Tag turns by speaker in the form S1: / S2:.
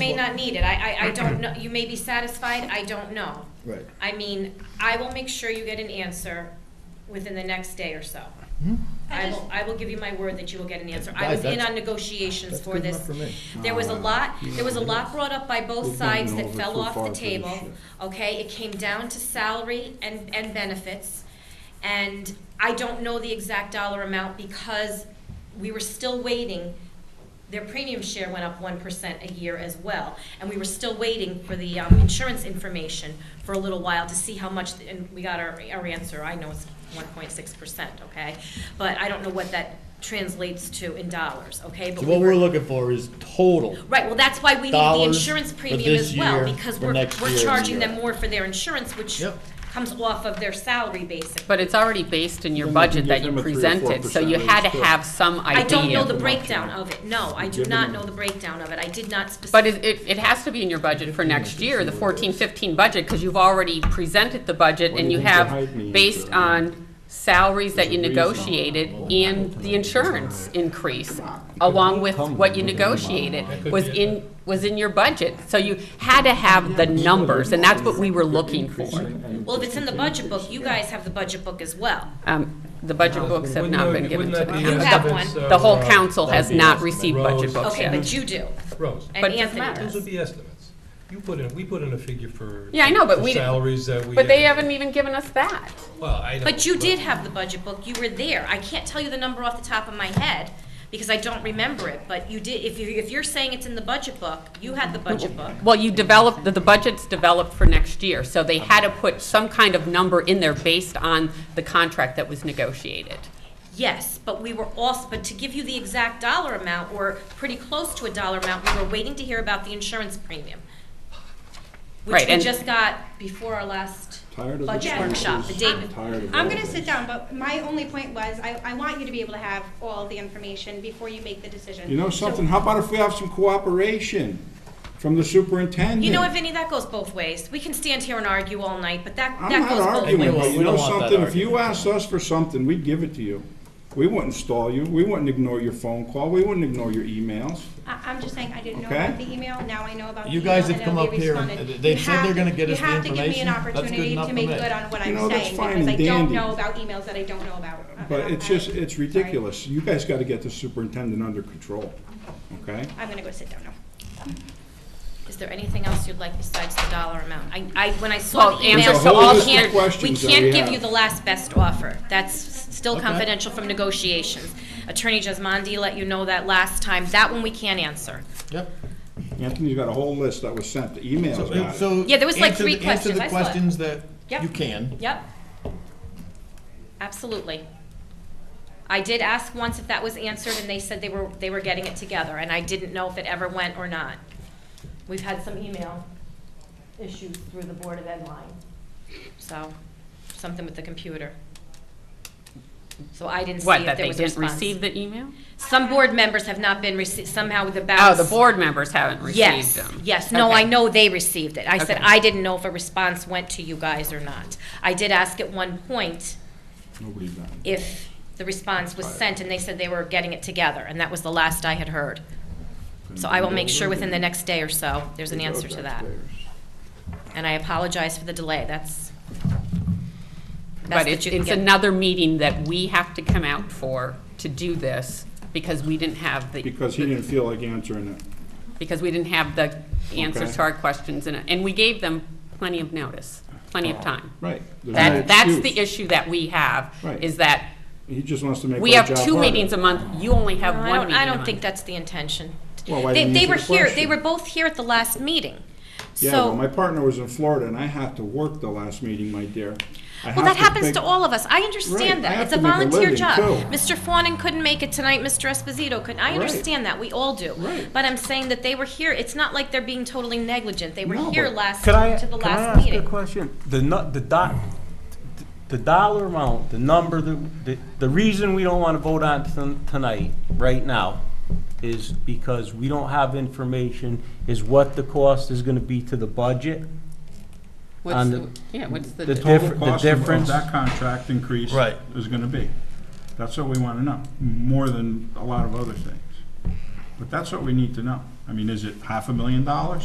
S1: not need it. I, I, I don't know, you may be satisfied, I don't know.
S2: Right.
S1: I mean, I will make sure you get an answer within the next day or so.
S2: Hmm?
S3: I
S1: I
S3: just-
S1: will, I will give you my word that you will get an answer. I
S2: Guys,
S1: was in
S2: that's-
S1: on negotiations
S2: that's
S1: for
S2: good
S1: this.
S2: enough for me.
S1: There was a
S4: Oh, wow.
S1: lot, there was a lot brought up by both
S4: We've
S1: sides that
S4: gotten over
S1: fell
S4: so
S1: off
S4: far
S1: the
S4: for this
S1: table.
S4: shit.
S1: Okay, it came down to salary and, and benefits. And I don't know the exact dollar amount because we were still waiting. Their premium share went up one percent a year as well. And we were still waiting for the um, insurance information for a little while to see how much, and we got our, our answer. I know it's one point six percent, okay? But I don't know what that translates to in dollars, okay? But
S2: So
S1: we
S2: what
S1: were-
S2: we're looking for is total.
S1: Right, well, that's why we need the
S2: Dollars
S1: insurance
S2: for
S1: premium
S2: this
S1: as well,
S2: year,
S1: because
S2: for
S1: we're,
S2: next
S1: we're
S2: year.
S1: charging them more for their insurance, which
S2: Yep.
S1: comes off of their salary basically.
S5: But it's already based in your
S4: Then we can
S5: budget
S4: give
S5: that you
S4: them a three or four
S5: presented, so
S4: percent
S5: you had to
S4: raise, too.
S5: have some idea.
S1: I don't know the
S4: much,
S1: breakdown
S4: yeah.
S1: of it, no, I do
S4: Give
S1: not
S4: them-
S1: know the breakdown of it, I did not
S5: But
S1: specifically.
S5: it, it, it has to be in your budget for next year, the fourteen, fifteen budget, because you've already presented the budget
S4: What do
S5: and
S4: you
S5: you
S4: think the
S5: have,
S4: hike means,
S5: based
S4: uh,
S5: on salaries that you
S4: There's a
S5: negotiated and the insurance increase, along with what you negotiated, was in, was in your budget. So you had to have the numbers, and that's what we were looking for.
S1: Well, if it's in the budget book, you guys have the budget book as well.
S5: Um, the budget books have not been given to us.
S1: You have one.
S5: The whole
S6: uh,
S5: council has not received budget books
S1: Okay,
S5: yet.
S1: but you do,
S6: Rose,
S1: and
S5: But it
S1: Anthony
S5: doesn't matter.
S6: those
S1: does.
S6: would be estimates. You put in, we put in a figure for.
S5: Yeah, I know, but
S6: for
S5: we-
S6: Salaries that we.
S5: But they haven't even given us that.
S6: Well, I know.
S1: But you did have the budget book, you were there, I can't tell you the number off the top of my head, because I don't remember it, but you did, if you, if you're saying it's in the budget book, you had the budget book.
S5: Well, you developed, the- the budget's developed for next year, so they had to put some kind of number in there based on the contract that was negotiated.
S1: Yes, but we were also, but to give you the exact dollar amount, or pretty close to a dollar amount, we were waiting to hear about the insurance premium. Which
S5: Right,
S1: we
S5: and-
S1: just got before our last
S4: Tired of
S1: budget
S4: the
S1: workshop, the day.
S4: excuses, tired of
S3: I'm
S4: all
S3: gonna
S4: this.
S3: sit down, but my only point was, I, I want you to be able to have all the information before you make the decision.
S4: You know
S3: So-
S4: something, how about if we have some cooperation from the superintendent?
S1: You know what, Vinnie, that goes both ways. We can stand here and argue all night, but that,
S4: I'm
S1: that
S4: not
S1: goes both ways.
S4: arguing,
S2: We
S4: but
S2: don't-
S4: you
S2: we
S4: know
S2: don't want that
S4: something, if you
S2: argument.
S4: asked us for something, we'd give it to you. We wouldn't stall you, we wouldn't ignore your phone call, we wouldn't ignore your emails.
S3: I, I'm just saying, I didn't know
S4: Okay.
S3: about the email, now I know about the
S2: You
S3: email.
S2: guys have
S3: and
S2: come
S3: we
S2: up here and
S3: responded.
S2: they've
S3: You
S2: said they're
S3: have-
S2: gonna get us the
S3: You have
S2: information. That's good
S3: to give me an
S2: enough for
S3: opportunity
S2: me.
S3: to make good on what
S4: You
S3: I'm
S4: know, that's
S3: saying,
S4: fine
S3: because I
S4: and
S3: don't
S4: dandy.
S3: know about emails that I don't know about. Uh, I-
S4: But
S3: I'm-
S4: it's just,
S3: I'm-
S4: it's
S3: sorry.
S4: ridiculous. You guys gotta get the superintendent under control, okay?
S3: I'm gonna go sit down now.
S1: Is there anything else you'd like besides the dollar amount? I, I, when I saw
S5: Well,
S1: the email,
S5: answer
S1: so
S5: all
S1: we
S5: the
S1: can't, we
S4: questions that we
S1: can't give
S4: have.
S1: you the last best offer. That's still confidential from negotiations. Attorney Jesmondi let you know that last time. That one we can't answer.
S2: Yep.
S4: Anthony's got a whole list that was sent, the emails got it.
S2: So.
S1: Yeah, there was like
S2: answer
S1: three
S2: the- answer
S1: questions. I saw it.
S2: the questions that
S1: Yep.
S2: you can.
S1: Yep. Absolutely. I did ask once if that was answered, and they said they were, they were getting it together, and I didn't know if it ever went or not. We've had some email issues through the Board of Ed line, so, something with the computer. So I didn't see
S5: What,
S1: if
S5: that
S1: there
S5: they
S1: was a
S5: didn't
S1: response.
S5: receive the email?
S1: Some board members have not been received, somehow the
S5: Oh,
S1: balance.
S5: the board members haven't received
S1: Yes,
S5: them.
S1: yes, no, I
S5: Okay.
S1: know they received it. I said,
S5: Okay.
S1: I didn't know if a response went to you guys or not. I did ask at one point
S4: Nobody got it.
S1: if the response was sent, and they said they were getting it together, and that was the last I had heard. So I will make sure within the next day or so, there's an answer to that. And I apologize for the delay, that's. that's
S5: But
S1: that
S5: it's,
S1: you can
S5: it's
S1: get-
S5: another meeting that we have to come out for to do this, because we didn't have the,
S4: Because he didn't feel like answering it.
S5: because we didn't have the answers
S4: Okay.
S5: to our questions, and, and we gave them plenty of notice, plenty of time.
S4: Oh. Right. There's no
S5: That, that's
S4: excuse.
S5: the issue that we have,
S4: Right.
S5: is that
S4: He just wants to make
S5: we
S4: our
S5: have
S4: job
S5: two
S4: harder.
S5: meetings a month, you only have
S1: No,
S5: one
S1: I don't,
S5: meeting
S1: I
S5: a
S1: don't
S5: month.
S1: think that's the intention.
S4: Well, why
S1: They-
S4: didn't you answer the
S1: They were here, they
S4: question?
S1: were both here at the last meeting, so.
S4: Yeah, well, my partner was in Florida and I had to work the last meeting, my dear. I
S1: Well,
S4: have
S1: that happens
S4: pick-
S1: to all of us. I
S4: Right, I
S1: understand that.
S4: have
S1: It's a
S4: to make a
S1: volunteer
S4: living,
S1: job.
S4: too.
S1: Mr. Fawnin couldn't make it tonight, Mr. Esposito couldn't. I
S4: Right.
S1: understand that. We all do.
S4: Right.
S1: But I'm saying that they were here. It's not like they're being totally negligent. They were
S4: No,
S1: here
S4: but-
S1: last,
S7: Could I,
S1: to the
S7: could I
S1: last
S7: ask you a
S1: meeting.
S7: question? The nu, the dot, the dollar amount, the number, that- the, the reason we don't want to vote on ton- tonight, right now, is because we don't have information, is what the cost is going to be to the budget?
S5: What's,
S7: on
S5: the- yeah, what's
S7: the
S5: the,
S7: total-
S4: Total
S7: differ- the
S4: cost of- of
S7: difference-
S4: that contract increase.
S7: Right.
S4: Is gonna be. That's what we wanna know, more than a lot of other things. But that's what we need to know. I mean, is it half a million dollars?